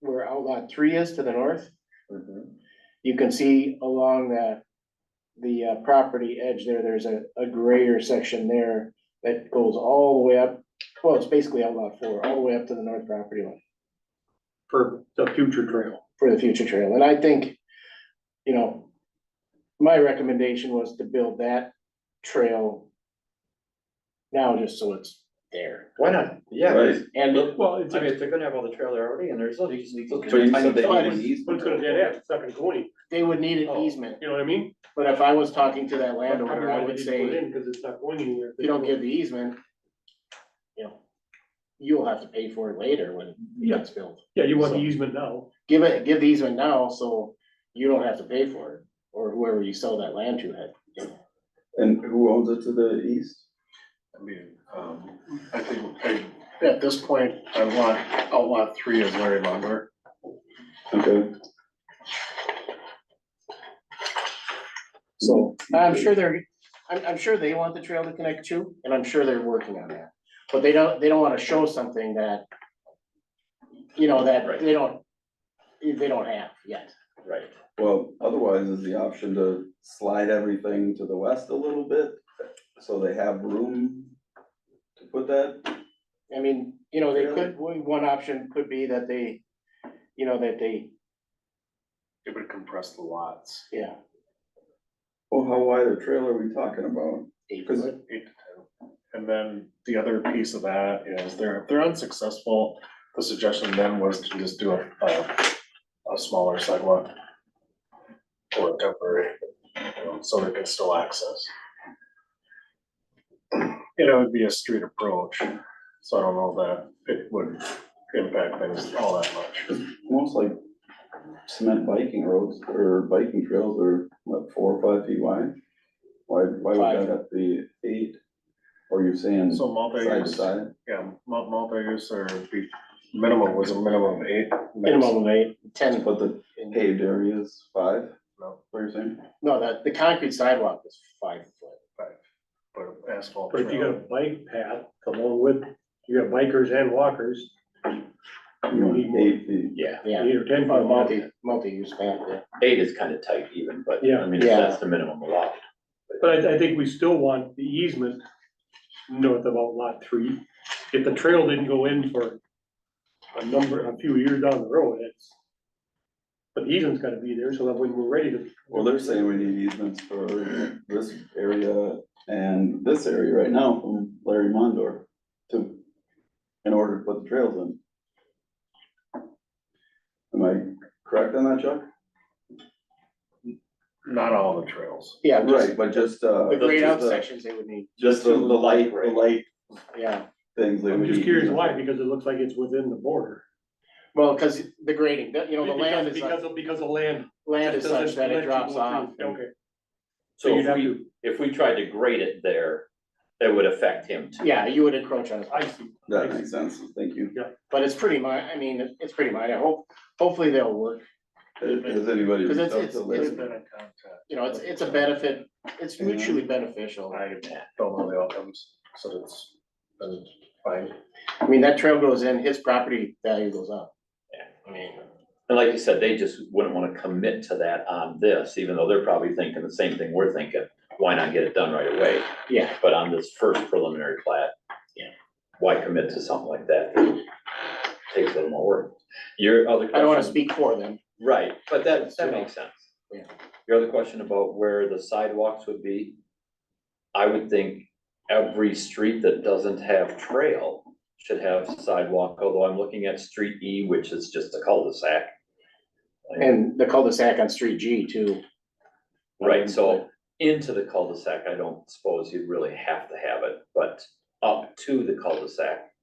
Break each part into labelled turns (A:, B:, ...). A: where outlot three is to the north,
B: Mm-hmm.
A: you can see along that. The uh, property edge there, there's a, a grayer section there that goes all the way up, well, it's basically outlot four, all the way up to the north property line.
B: for the future trail.
A: for the future trail, and I think, you know, my recommendation was to build that trail now, just so it's there.
B: Why not? Yeah.
C: Right,
A: And it-
B: Well, it's, I mean, they're gonna have all the trail there already and there's, you just need.
C: So you said they
B: But
C: need an easement.
D: But it's gonna dead end, it's not gonna go any,
A: they would need an easement,
D: you know what I mean?
A: but if I was talking to that
D: I don't know
A: landowner,
D: why
A: I
D: they
A: would
D: didn't put it
A: say, if
D: in, Cause it's not going anywhere.
A: you don't give the easement, you know, you'll have to pay for it later when it
D: Yeah.
A: gets built.
D: Yeah, you want the easement now,
A: Give it, give the easement now, so you don't have to pay for it, or whoever you sell that land to had.
C: And who owns it to the east?
E: I mean, um, I think I,
A: At this point,
E: I want outlot three is Larry Lumber.
C: Okay.
A: So I'm sure they're, I'm, I'm sure they want the trail to connect too, and I'm sure they're working on that. But they don't, they don't wanna show something that, you know, that they don't, they don't have yet.
B: Right.
C: Well, otherwise is the option to slide everything to the west a little bit, so they have room to put that.
A: I mean, you know, they
C: Really?
A: could, one one option could be that they, you know, that they,
E: It would compress the lots.
A: yeah.
C: Well, how wide a trail are we talking about?
A: eight
C: Cause-
A: foot.
E: Eight to ten. And then the other piece of that is they're, if they're unsuccessful, the suggestion then was to just do a, a, a smaller sidewalk. Or a temporary, you know, so they can still access. And it would be a street approach, so I don't know that it would impact things all that much.
C: Almost like cement biking roads or biking trails are what, four or five feet wide? Why, why would
A: Five.
C: that have to be eight? Or you're saying
E: So
C: side to
E: multi-use.
C: side?
E: Yeah, mul- multi-use or be, minimum was a minimum of eight. max-
A: Minimum of eight, ten.
C: But the paved area is five,
E: No,
C: what you're saying?
A: No, that, the concrete sidewalk is five foot.
E: five, but asphalt.
D: but if you got a
E: trail,
D: bike path along with, you got bikers and walkers,
C: You
D: need
C: want
D: more.
C: eight feet.
F: Yeah,
A: Yeah,
D: eight or ten.
A: or
D: foot walk.
A: multi, multi-use path, yeah.
F: eight is kind of tight even, but
D: Yeah.
F: I mean,
A: Yeah.
F: if that's the minimum allowed.
D: But I, I think we still want the easement north of lot three. If the trail didn't go in for a number, a few years down the road, it's. But the easement's gotta be there, so that when we're ready to.
C: Well, they're saying we need easements for this area and this area right now from Larry Mondor to, in order to put the trails in. Am I correct on that, Chuck?
E: Not all the trails.
A: Yeah, just
C: Right, but just, uh.
A: the grade out
C: just the-
A: sections they would need,
C: Just the, the light, the light
A: yeah.
C: things. they
D: I'm
C: would
D: just
C: need
D: curious why,
C: easements
D: because it looks like it's within the border.
A: Well, because the grading, that- you know, the land is,
D: Because, because of, because of land.
A: land is
D: Just doesn't
A: such that
D: let
A: it
D: you
A: drops
D: go
A: off.
D: through. Okay, so
F: So
D: you'd
F: if
D: have
F: we,
D: to,
F: if we tried to grade it there, that would affect him too.
A: Yeah, you would encroach on it,
D: I see.
C: for- That makes sense, thank you.
A: but it's pretty mi, I mean, it- it's pretty minor, hope, hopefully they'll work,
C: Has anybody
A: Because it's-
C: reached out
A: it's-
C: to
A: it's-
C: Larry?
E: It's been a contact.
A: you know, it's, it's a benefit, it's mutually beneficial.
E: I don't know the outcomes, so it's, been fine.
A: I mean, that trail goes in, his property value goes up.
F: Yeah.
A: I mean,
F: And like you said, they just wouldn't want to commit to that on this, even though they're probably thinking the same thing we're thinking. Why not get it done right away?
A: yeah,
F: But on this first preliminary plat.
A: Yeah.
F: Why commit to something like that? Takes a little more work. Your other
A: I don't wanna
F: question-
A: speak for them,
F: Right, but that, that makes sense.
A: Yeah.
F: Your other question about where the sidewalks would be? I would think every street that doesn't have trail should have sidewalk, although I'm looking at street E, which is just a cul-de-sac.
A: and the cul-de-sac on Street G too,
F: Right, so into the cul-de-sac, I don't suppose you'd really have to have it, but up to the cul-de-sac.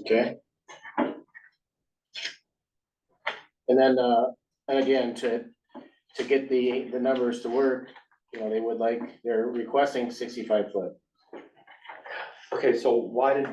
A: okay? And then, uh, and again, to, to get the, the numbers to work, you know, they would like, they're requesting sixty-five foot.
F: Okay, so why did